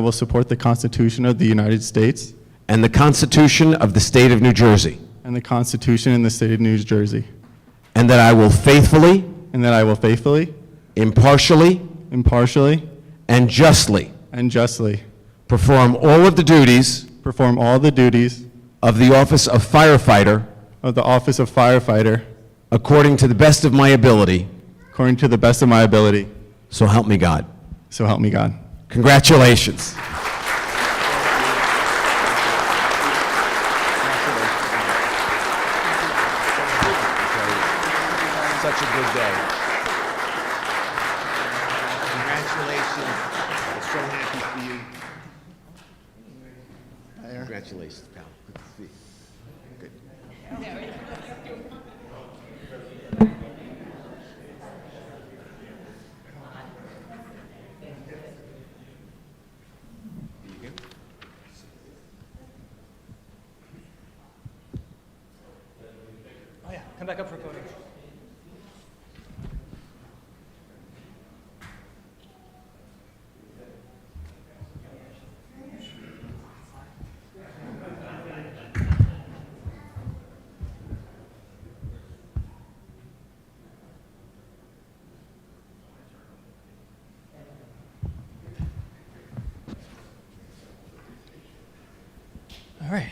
I will support the Constitution of the United States and the Constitution of the State of New Jersey, and the Constitution in the state of New Jersey, and that I will faithfully, and that I will faithfully, impartially, impartially, and justly and justly perform all of the duties perform all the duties of the office of firefighter of the office of firefighter according to the best of my ability, according to the best of my ability. so help me God. So help me God. Congratulations. Such a good day. Congratulations. I'm so happy for you. Congratulations, pal. Good to see you. Good. Oh, yeah. Come back up for a photo. All right.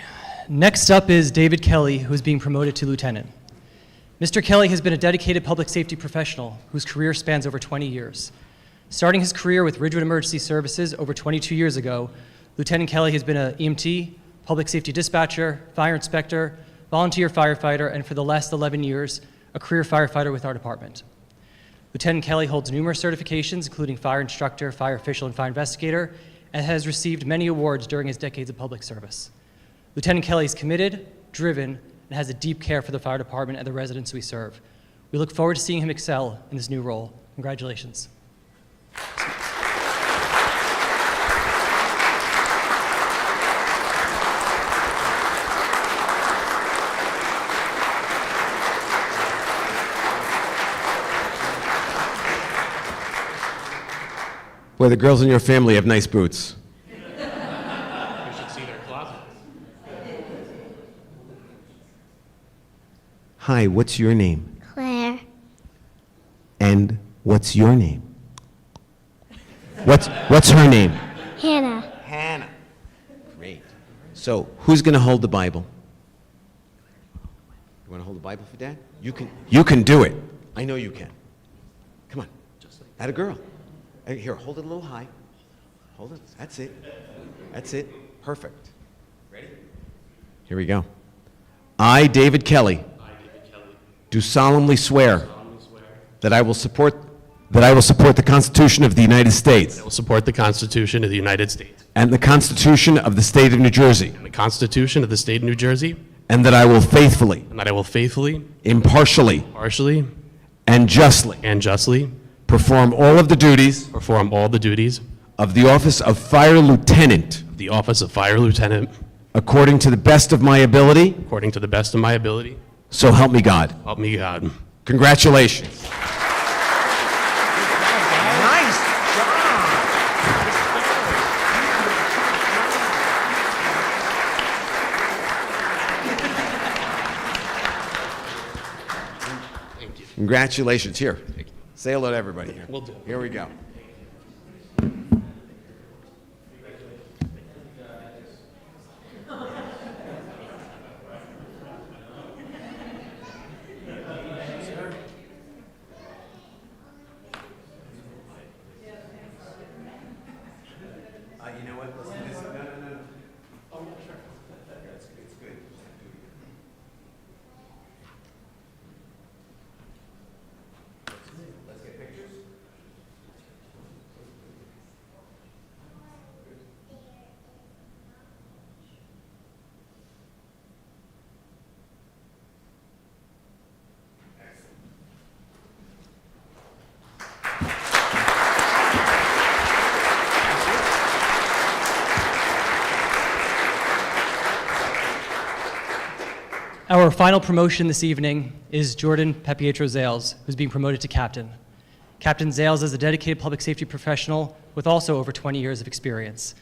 Next up is David Kelly, who is being promoted to lieutenant. Mr. Kelly has been a dedicated public safety professional whose career spans over 20 years. Starting his career with Ridgewood Emergency Services over 22 years ago, Lieutenant Kelly has been an EMT, public safety dispatcher, fire inspector, volunteer firefighter, and for the last 11 years, a career firefighter with our department. Lieutenant Kelly holds numerous certifications, including fire instructor, fire official, and fire investigator, and has received many awards during his decades of public service. Lieutenant Kelly is committed, driven, and has a deep care for the fire department and the residents we serve. We look forward to seeing him excel in this new role. Congratulations. Boy, the girls in your family have nice boots. Hi, what's your name? Claire, And what's your name? What's, what's her name? Hannah, Hannah. Great. So, who's going to hold the Bible? You want to hold the Bible for Dad? You can. You can do it. I know you can. Come on. Just like that. a girl. Hey, Here, hold it a little high. Hold it. That's it. That's it. Perfect. Ready? Here we go. I, David Kelly. Do solemnly swear. That I will support. That I will support the Constitution of the United States. I will support the Constitution of the United States And the Constitution of the State of New Jersey. and the Constitution of the State of New Jersey, And that I will faithfully, and that I will faithfully, impartially, partially, and justly and justly perform all of the duties perform all the duties of the office of Fire Lieutenant of the office of Fire Lieutenant according to the best of my ability, according to the best of my ability. so help me God. Help me God. Congratulations. Nice job. Congratulations. Here, say hello to everybody here. Will do. Here we go. Our final promotion this evening is Jordan Pepietro Zales, who's being promoted to captain. Captain Zales is a dedicated public safety professional with also over 20 years of experience.